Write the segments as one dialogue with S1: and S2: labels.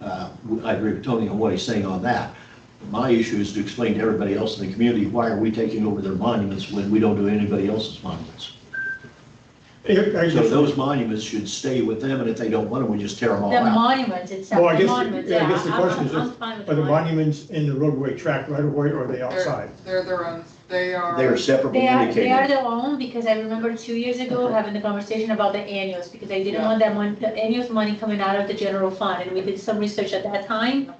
S1: uh, I agree with Tony on what he's saying on that. My issue is to explain to everybody else in the community, why are we taking over their monuments when we don't do anybody else's monuments?
S2: I- I
S1: So
S2: guess-
S1: those monuments should stay with them, and if they don't want them, we just tear them all
S3: The
S1: out.
S3: monuments itself,
S2: Well, I
S3: the
S2: guess,
S3: monuments,
S2: yeah,
S3: yeah.
S2: I guess the
S3: I'm-
S2: question is,
S3: I'm
S2: just,
S3: fine with
S2: are the
S3: the
S2: monuments in the roadway track right away, or are they
S4: They're-
S2: outside?
S4: They're their own, they are.
S1: They are separable
S3: They are, they are
S1: indicators.
S3: their own, because I remember two years ago having the conversation about the annuals, because I didn't
S4: Yeah.
S3: want that money, the annuals money coming out of the general fund, and we did some research at that time.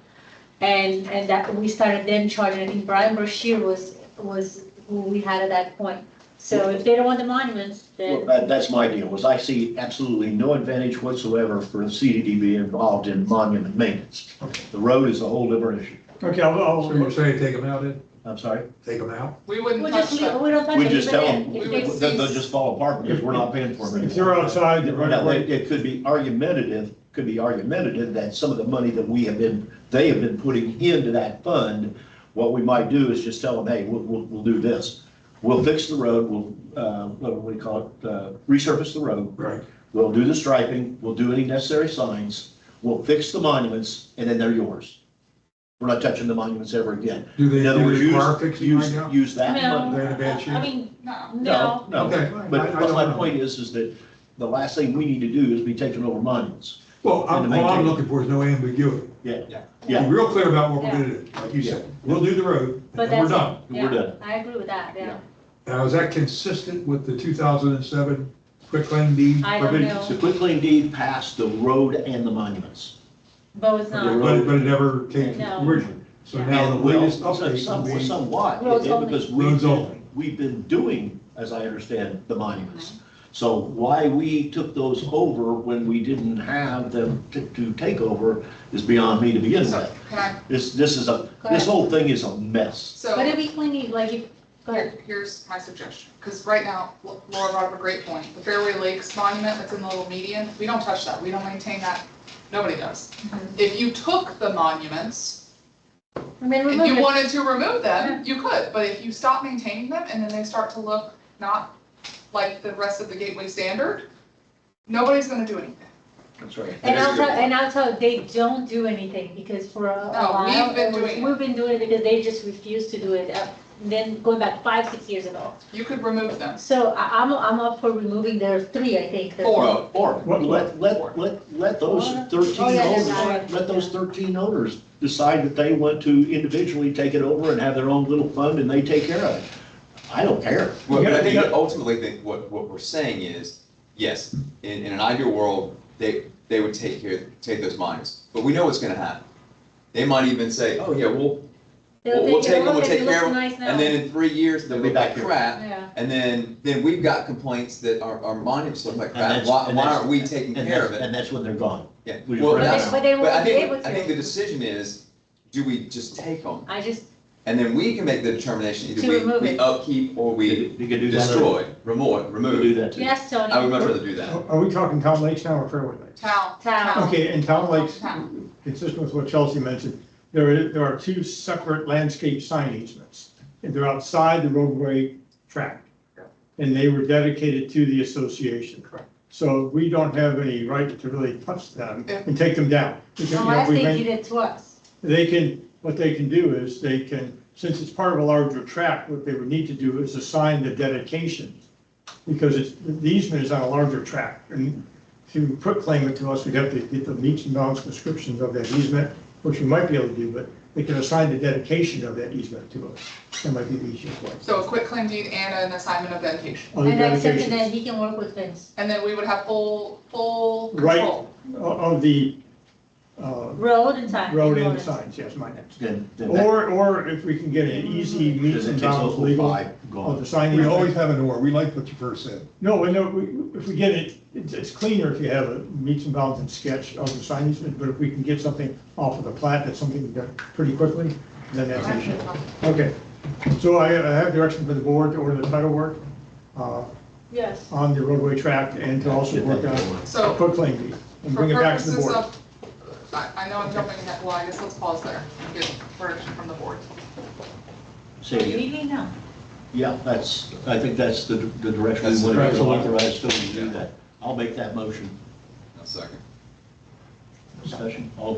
S3: And, and that, we started then charging, I think Brian Brashear was, was who we had at that point. So if they don't want the monuments,
S1: Well,
S3: then,
S1: that- That's my deal, is I see absolutely no advantage whatsoever for the CDD being involved in monument maintenance. The road is a whole different issue.
S2: Okay, I'll,
S5: So you're
S2: I'll,
S5: saying take them out then?
S1: I'm sorry?
S5: Take them out?
S4: We wouldn't
S3: we'll
S4: touch
S3: just, leave-
S4: them.
S3: we don't touch it.
S1: We just
S3: even
S1: tell
S3: then,
S1: them,
S3: if
S4: we-
S3: they-
S1: they'll they'll just fall apart because we're not paying for them anymore.
S2: if they're outside the right of
S1: Now, it
S2: way,
S1: it could be argumentative, could be argumentative that some of the money that we have been, they have been putting into that fund, what we might do is just tell them, hey, we'll, we'll, we'll do this. We'll fix the road, we'll, uh, what do we call it, uh, resurface the road,
S5: Right.
S1: we'll do the striping, we'll do any necessary signs, we'll fix the monuments, and then they're yours. We're not touching the monuments ever again.
S5: Do they,
S1: In other
S5: do
S1: words,
S5: they
S1: use,
S5: require fixing right
S1: use,
S5: now?
S1: use
S3: I
S1: that
S3: mean,
S1: money.
S5: They're in a bad
S3: I- I
S5: shape?
S3: mean,
S4: No.
S3: no.
S1: No, no.
S5: Okay. I-
S1: But,
S5: I
S1: but
S5: don't
S1: my
S5: know.
S1: point is, is that the last thing we need to do is be taking over monuments.
S5: Well, I'm-
S1: And to
S5: all I'm
S1: maintain-
S5: looking for is no ambiguity.
S1: Yeah,
S5: Be
S1: yeah,
S5: real clear about what we're gonna do, like you said. We'll do the road,
S3: But
S5: and we're
S3: that's-
S5: done.
S1: we're
S3: yeah,
S1: done.
S3: I agree with that, yeah.
S5: Now, is that consistent with the 2007 quitclaim deed?
S3: I don't
S1: Prohibited, so
S3: know,
S1: quick claim deed passed the road and the monuments.
S3: but it's
S1: The
S3: not.
S5: But, but it never came to
S3: No.
S5: fruition. So now the
S1: And well,
S5: latest
S1: some- some-
S5: update
S1: Somewhat,
S3: Roads
S1: yeah,
S3: only.
S1: because
S5: Roads
S1: we've,
S5: only.
S1: been- we've been doing, as I understand, the monuments. So why we took those over when we didn't have them to, to take over is beyond me to begin
S4: So,
S1: with.
S4: can I,
S1: This, this is a,
S3: Correct.
S1: this whole thing is a mess.
S4: so.
S3: But it'd be clean, like, if- go ahead.
S4: Here- Here's my suggestion, because right now, Laura brought up a great point, the Fairway Lakes monument that's in the little median, we don't touch that, we don't maintain that, nobody does.
S3: Mhm.
S4: If you took the monuments,
S3: I mean,
S4: and you
S3: remember,
S4: wanted to remove them, you could, but if you stop maintaining them and then they start to look not like the rest of the Gateway standard, nobody's gonna do anything.
S1: That's right.
S3: and I'll tell, and I'll tell, they don't do anything, because for a a
S4: No,
S3: while.
S4: we've
S3: it
S4: been
S3: was-
S4: doing it.
S3: We've been doing it because they just refused to do it, uh, then going back five, six years ago.
S4: You could remove them.
S3: So I, I'm, I'm up for removing, there are three, I think. that-
S4: Four.
S1: Or, or,
S2: What-
S1: let, let, let, let those thirteen
S3: Oh, yeah,
S1: owners,
S3: decide.
S1: let those thirteen owners decide that they want to individually take it over and have their own little fund and they take care of it. I don't care.
S6: Well, but I think
S2: Yeah.
S6: ultimately, that what, what we're saying is, yes, in, in an ideal world, they, they would take care, take those miners, but we know what's gonna happen. They might even say, oh, yeah, we'll,
S3: They'll
S6: We'll- we'll
S3: a
S6: take 'em,
S3: look
S6: we'll
S3: at it,
S6: take
S3: looks
S6: care of 'em,
S3: nice now.
S6: and then in three years, they'll be back crap,
S3: Yeah,
S6: and then, then we've got complaints that our, our monuments look like
S1: And
S6: crap,
S1: that's-
S6: why,
S1: and
S6: why
S1: that's-
S6: aren't we taking
S1: And
S6: care
S1: that's,
S6: of it?
S1: and that's when they're gone.
S6: Yeah,
S1: we
S6: well,
S1: just-
S3: but they,
S6: that's,
S3: but they
S6: but I
S3: won't be
S6: think,
S3: able to.
S6: I think the decision is, do we just take them?
S3: I just,
S6: And then we can make the determination,
S3: To
S6: either we,
S3: remove
S6: we
S3: it.
S6: upkeep or
S1: You
S6: we
S1: could do that.
S6: destroy, remove,
S1: You could do
S6: remove.
S1: that too.
S3: yes, Tony.
S6: I would much rather do that.
S2: are are we talking town lakes now or fairway lakes?
S4: Town,
S3: Town.
S4: town.
S2: Okay, in town lakes,
S4: Town.
S2: consistent with what Chelsea mentioned, there are, there are two separate landscape sign easements. And they're outside the roadway track. And they were dedicated to the association.
S4: Correct.
S2: So we don't have any right to really touch them
S4: Yeah.
S2: and take them down. We can- you know,
S3: Unless
S2: we
S3: they
S2: may-
S3: did it to us.
S2: They can, what they can do is they can, since it's part of a larger tract, what they would need to do is assign the dedication. Because it's, the easement is on a larger tract and to put claim it to us, we'd have to get the meets and bounds descriptions of that easement, which we might be able to do, but they can assign the dedication of that easement to us. That might be the easiest way.
S4: So a quick claim deed and an assignment of dedication.
S2: Other
S3: And that's something that
S2: dedications
S3: he can work with Vince.
S4: And then we would have full, full
S2: Right.
S4: control.
S2: o- Of the, uh,
S3: Road and sign.
S2: road and signs, yes, my next.
S1: Then, then that,
S2: Or, or if we can get an easy
S1: because
S2: meets
S1: it
S2: and
S1: takes
S2: bounds
S1: over
S2: legal
S1: five,
S2: of
S1: gone.
S2: the sign.
S5: We
S2: easement.
S5: always have an or, we like what you first said.
S2: No, and no, we- if we get it, it's- it's cleaner if you have a meets and bounds and sketch of the sign easement, but if we can get something off of the plat, that's something we done pretty quickly, then that's an issue. Okay, so I I have direction for the board to order the title work uh,
S3: Yes.
S2: on the roadway tract and to also work on
S4: So
S2: quick claim deed and
S4: For
S2: bring it back to the
S4: purposes
S2: board.
S4: of, I, I know I'm jumping ahead, well, I guess let's pause there and get direction from the board.
S1: Say it again.
S3: now?
S1: Yeah, that's, I think that's the, the direction
S6: That's
S1: we
S6: the
S1: want to
S5: direction.
S1: authorize Tony to do
S6: Yeah.
S1: that. I'll make that motion.
S6: A second.
S1: Discussion, all in